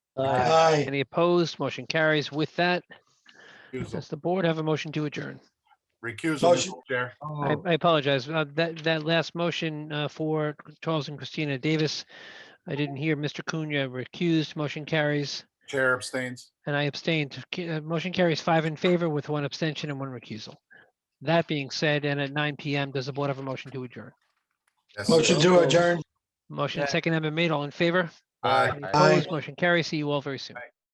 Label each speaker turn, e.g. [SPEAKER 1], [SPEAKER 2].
[SPEAKER 1] Aye.
[SPEAKER 2] Any opposed? Motion carries. With that,
[SPEAKER 3] Recusal.
[SPEAKER 2] does the board have a motion to adjourn?
[SPEAKER 3] Recusal,
[SPEAKER 1] Motion.
[SPEAKER 3] Mr. Chair.
[SPEAKER 2] I I apologize. Uh, That, that last motion uh, for Charles and Christina Davis, I didn't hear Mr. Cunha recused. Motion carries.
[SPEAKER 3] Chair abstains.
[SPEAKER 2] And I abstained. Ca- uh, Motion carries five in favor with one abstention and one recusal. That being said, and at nine PM, does the board have a motion to adjourn?
[SPEAKER 3] Yes.
[SPEAKER 1] Motion to adjourn.
[SPEAKER 2] Motion second amendment made, all in favor?
[SPEAKER 3] Aye.
[SPEAKER 2] Any Opposed, motion carries. See you all very soon.